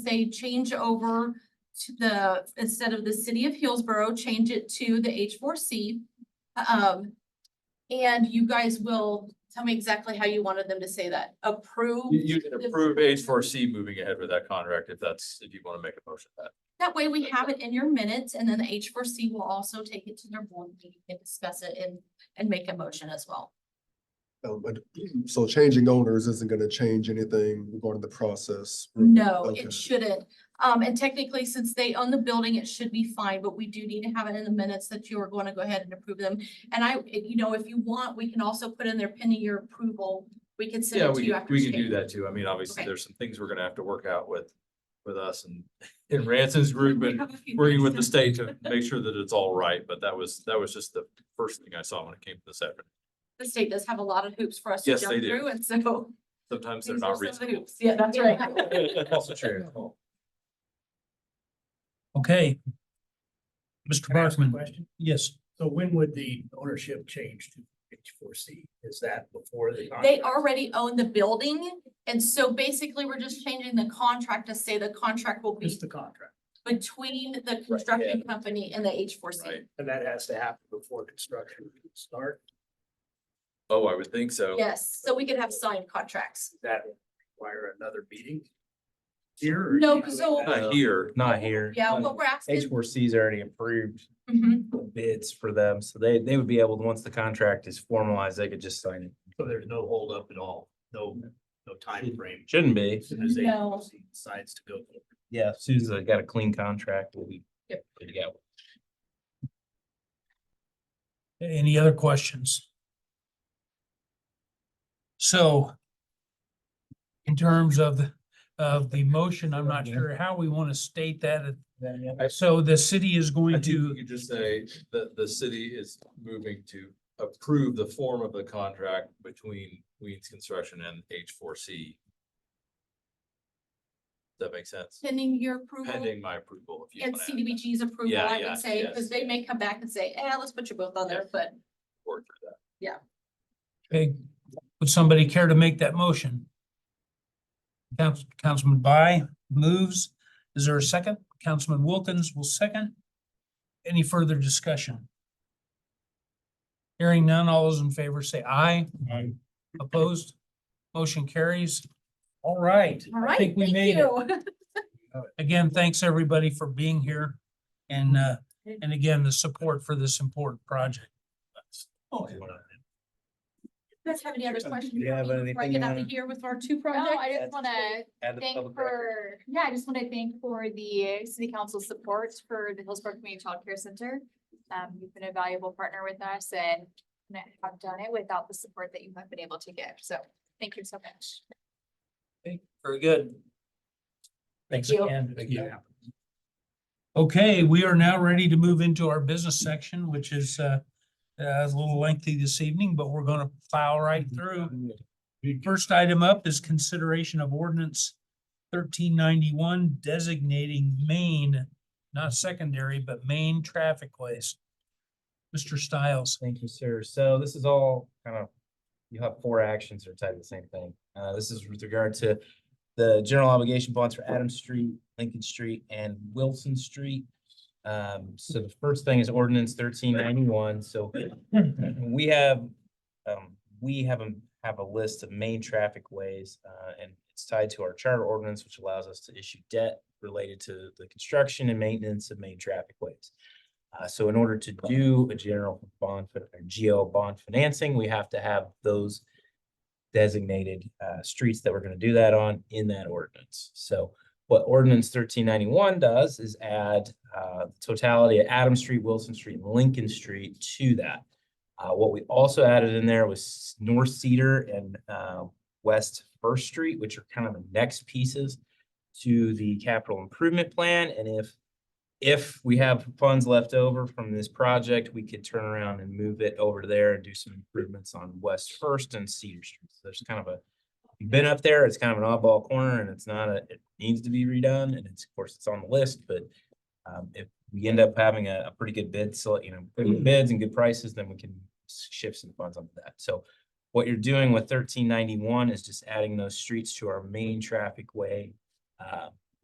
say change over to the, instead of the city of Hillsborough, change it to the H four C. Um, and you guys will tell me exactly how you wanted them to say that. Approve, You, you can approve H four C moving ahead with that contract if that's, if you want to make a motion to that. that way we have it in your minutes and then the H four C will also take it to their board meeting and discuss it and, and make a motion as well. Um, but, so changing owners isn't gonna change anything regarding the process. Mm-hmm. No, Okay. it shouldn't. Um, and technically, since they own the building, it should be fine, but we do need to have it in the minutes that you are going to go ahead and approve them. And I, if- you know, if you want, we can also put in there pending your approval. We can send Yeah, it to we, you after. we can do today. that too. I mean, obviously, Okay. there's some things we're gonna have to work out with, with us and, and Ranson's group We and have a few working with the things. state to make sure that it's all right, but that was, that was just the first thing I saw when it came to this afternoon. The state does have a lot of hoops for us to Yes, jump they do. through, and so. Sometimes they're these are some not of the reasonable. hoops. Yeah, that's right. Also true. Okay. Mr. Can I ask a Barkman, question? yes, So when would the ownership change to H four C? Is that before the? They contract? already own the building, and so basically, we're just changing the contract to say the contract will It's be the contract, between the construction company and the H four C. Right. and that has to happen before construction can start. Oh, I would think so. Yes, so we could have signed contracts. Does That require another meeting? Here? or No, you can 'cause do it so- now? Not here. Not here. Yeah, what we're H asking, four C's already approved Mhm. the bids for them, so they, they would be able, to once the contract is formalized, they could just sign it. So there's no holdup at all, no, no timeframe. Shouldn't be. As soon as No. H4C decides to go. forward. Yeah, as soon as they got a clean contract, we'll be Yep. good to go. any other questions? So in terms of, the of the motion, I'm not sure how we want to state that. So the city is I going think you to, could just say that the city is moving to approve the form of the contract between Weeds Construction and H four C. That makes sense, pending your approval pending my approval. if you and wanna add that, CDBG's approval, Yeah, I yeah, would say, yes. because they may come back and say, eh, let's put you both on there, but work through that. okay, would somebody care to make that motion? Council, Councilman By moves. Is there a second? Councilman Wilkins will second. Any further discussion? Hearing none, all those in favor say aye. Aye. Opposed? Motion carries. All right. all I right, think we thank made it. you. Again, thanks everybody for being here and, uh, and again, the support for this important project. Oh, you wanna- You guys have any other questions? Do you have before we anything break it you out of wanna- here with our two No, I projects? just wanna Add the thank public record. for, yeah, I just wanna thank for the city council support for the Hillsborough Community Child Care Center. Um, you've been a valuable partner with us and i have done it without the support that you have been able to give, so thank you so much. Very good. Thanks you. again. Thank you. Okay, we are now ready to move into our business section, which is, uh, uh, a little lengthy this evening, but we're gonna plow right Mm-hmm. through. First item up is consideration of ordinance thirteen ninety-one designating Maine, not secondary, but main traffic ways. Mr. Stiles. Thank you, sir. So this is all kind of, you have four actions that are tied to the same thing. Uh, this is with regard to the general obligation bonds for Adams Street, Lincoln Street, and Wilson Street. Um, so the first thing is ordinance thirteen ninety-one, so we have, um, we have a, have a list of main traffic ways, uh, and it's tied to our charter ordinance, which allows us to issue debt related to the construction and maintenance of main traffic ways. Uh, so in order to do a general bond, fin- or GO bond financing, we have to have those designated, uh, streets that we're gonna do that on in that ordinance. So what ordinance thirteen ninety-one does is add, uh, totality of Adam Street, Wilson Street, and Lincoln Street to that. Uh, what we also added in there was North Cedar and, uh, West First Street, which are kind of the next pieces to the capital improvement plan, and if if we have funds left over from this project, we could turn around and move it over there and do some improvements on West First and Cedar Street. So There's kind of a, you've been up there, it's kind of an oddball corner and it's not a, it needs to be redone and it's, of course, it's on the list, but um, if we end up having a, a pretty good bid, so, you know, pretty good bids and good prices, then we can s- shift some funds onto that. So what you're doing with thirteen ninety-one is just adding those streets to our main traffic way uh,